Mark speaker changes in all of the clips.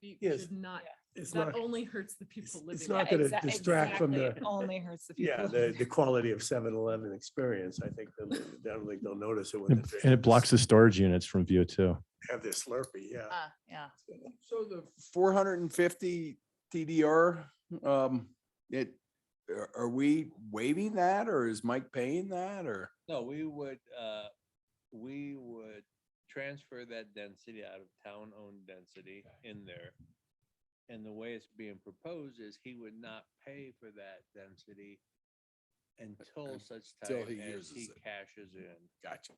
Speaker 1: dispute
Speaker 2: Yes.
Speaker 1: should not,
Speaker 2: It's
Speaker 1: that
Speaker 2: not,
Speaker 1: only hurts the
Speaker 2: it's-
Speaker 1: people
Speaker 2: it's
Speaker 1: living.
Speaker 2: not
Speaker 1: there.
Speaker 2: going to distract from the,
Speaker 3: Only hurts the people.
Speaker 2: yeah, the, the quality of 7-Eleven experience. I think, they'll- I don't think they'll notice it when
Speaker 4: And
Speaker 2: they
Speaker 4: and it blocks the storage units from view too.
Speaker 2: Have their Slurpee, yeah.
Speaker 3: Ah, Yeah,
Speaker 5: So the four hundred and fifty TDR, um, it, are, are we waiving that or is Mike paying that or?
Speaker 6: No, we would, uh, we would transfer that density out of town-owned density in there. And the way it's being proposed is he would not pay for that density until such
Speaker 5: Until
Speaker 6: time
Speaker 5: he
Speaker 6: as
Speaker 5: uses
Speaker 6: he
Speaker 5: it.
Speaker 6: cashes in
Speaker 5: Gotcha,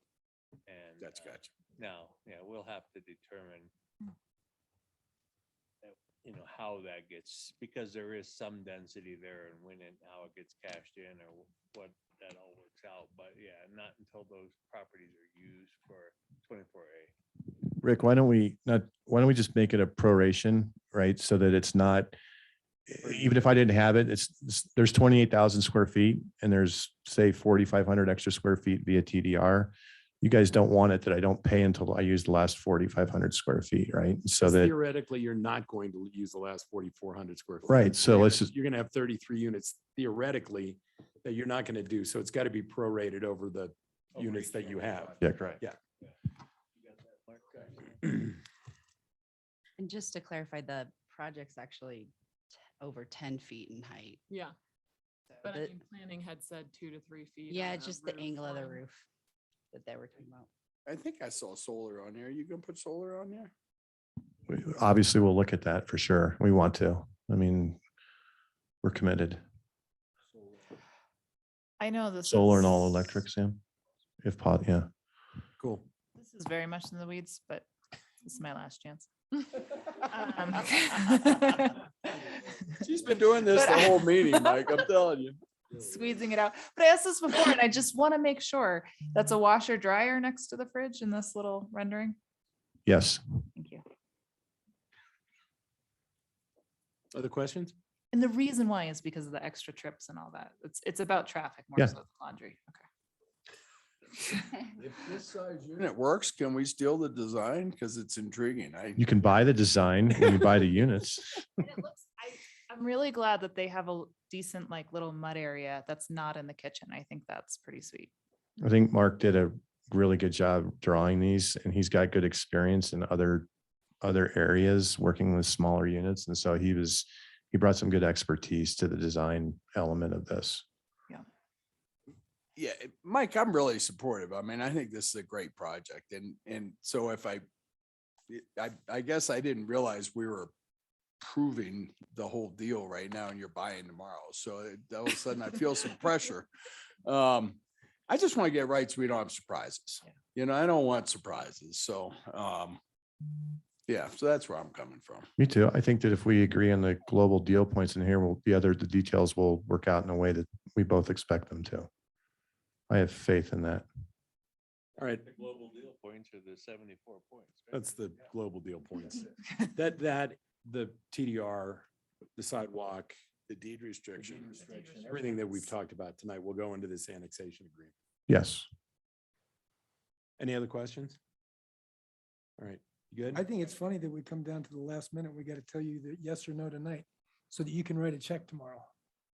Speaker 6: and.
Speaker 5: that's
Speaker 6: uh,
Speaker 5: gotcha.
Speaker 6: Now, yeah, we'll have to determine
Speaker 3: Mm.
Speaker 6: that, you know, how that gets, because there is some density there and when and how it gets cashed in or wh- what that all works out. But yeah, not until those properties are used for twenty-four A.
Speaker 4: Rick, why don't we not, why don't we just make it a proration, right? So that it's not, e- even if I didn't have it, it's, it's- there's twenty-eight thousand square feet and there's say forty-five hundred extra square feet via TDR. You guys don't want it that I don't pay until I use the last forty-five hundred square feet, right? So
Speaker 7: Because
Speaker 4: that,
Speaker 7: Theoretically, you're not going to use the last forty-four hundred square. feet.
Speaker 4: right, so
Speaker 7: You're
Speaker 4: let's
Speaker 7: gonna-
Speaker 4: just,
Speaker 7: You're gonna have thirty-three units theoretically that you're not gonna do, so it's gotta be prorated over the units that you have.
Speaker 4: yeah, right.
Speaker 8: And just to clarify, the project's actually t- over ten feet in height.
Speaker 1: Yeah,
Speaker 8: so
Speaker 1: but I
Speaker 8: the-
Speaker 1: mean, planning had said two to three feet.
Speaker 8: Yeah,
Speaker 1: on
Speaker 8: it's just the angle of the
Speaker 1: line.
Speaker 8: roof that they were talking about.
Speaker 5: I think I saw solar on there. You gonna put solar on there?
Speaker 4: We- Obviously, we'll look at that for sure. We want to. I mean, we're committed.
Speaker 3: I know this.
Speaker 4: Solar and
Speaker 3: is-
Speaker 4: all electric, Sam? If pot, yeah.
Speaker 7: Cool.
Speaker 3: This is very much in the weeds, but this is my last chance. Um,
Speaker 5: She's been doing this
Speaker 3: But
Speaker 5: the
Speaker 3: I-
Speaker 5: whole meeting, Mike, I'm telling you.
Speaker 3: squeezing it out. But I asked this before and I just want to make sure that's a washer dryer next to the fridge in this little rendering.
Speaker 4: Yes.
Speaker 3: Thank you.
Speaker 7: Other questions?
Speaker 3: And the reason why is because of the extra trips and all that. It's, it's about traffic
Speaker 4: Yeah.
Speaker 3: more so than laundry. Okay.
Speaker 5: If this size unit works, can we steal the design? Cause it's intriguing. I,
Speaker 4: You can buy the design when you buy the units.
Speaker 3: And it looks, I, I'm really glad that they have a l- decent like little mud area that's not in the kitchen. I think that's pretty sweet.
Speaker 4: I think Mark did a really good job drawing these and he's got good experience in other, other areas working with smaller units. And so he was, he brought some good expertise to the design element of this.
Speaker 5: yeah, it- Mike, I'm really supportive. I mean, I think this is a great project and, and so if I, it- I, I guess I didn't realize we were proving the whole deal right now and you're buying tomorrow. So it- all of a sudden I feel some pressure. Um, I just want to get right so we don't have surprises. You know, I don't want surprises. So, um, yeah, so that's where I'm coming from.
Speaker 4: Me too. I think that if we agree on the global deal points in here, will the other, the details will work out in a way that we both expect them to. I have faith in that.
Speaker 7: All right,
Speaker 6: The global deal points are the seventy-four points. right?
Speaker 7: that's the
Speaker 6: Yeah.
Speaker 7: global deal points. That, that, the TDR, the sidewalk,
Speaker 5: The deed restriction.
Speaker 7: everything that we've talked about tonight will go into this annexation agreement.
Speaker 4: Yes.
Speaker 7: Any other questions? All right, you good?
Speaker 9: I think it's funny that we come down to the last minute. We got to tell you that yes or no tonight so that you can write a check tomorrow.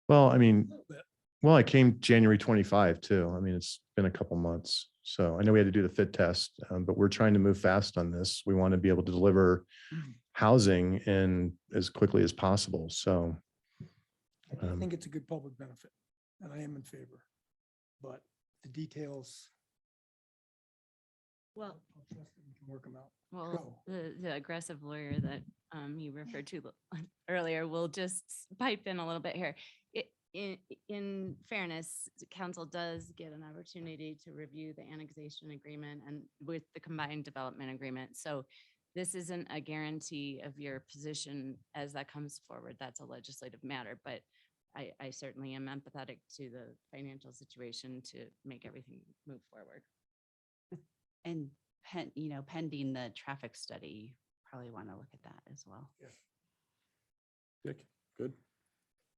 Speaker 4: Well, I mean,
Speaker 9: bit.
Speaker 4: well, I came January twenty-five too. I mean, it's been a couple months. So I know we had to do the fit test, um, but we're trying to move fast on this. We want to be able to deliver housing in as quickly as possible. So
Speaker 9: I
Speaker 4: Um,
Speaker 9: think it's a good public benefit and I am in favor. But the details,
Speaker 10: Well,
Speaker 9: I'll trust that we can work them out.
Speaker 10: well,
Speaker 9: Go.
Speaker 10: the, the aggressive lawyer that um, you referred to l- earlier will just s- pipe in a little bit here. I- In, in fairness, the council does get an opportunity to review the annexation agreement and with the combined development agreement. So this isn't a guarantee of your position as that comes forward. That's a legislative matter, but I, I certainly am empathetic to the financial situation to make everything move forward.
Speaker 8: And pen, you know, pending the traffic study, probably want to look at that as well.
Speaker 7: Dick, good?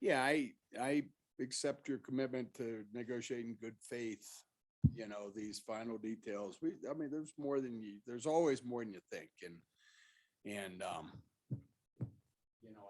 Speaker 5: Yeah, I, I accept your commitment to negotiating good faith. You know, these final details. We, I mean, there's more than you, there's always more than you think and, and, um,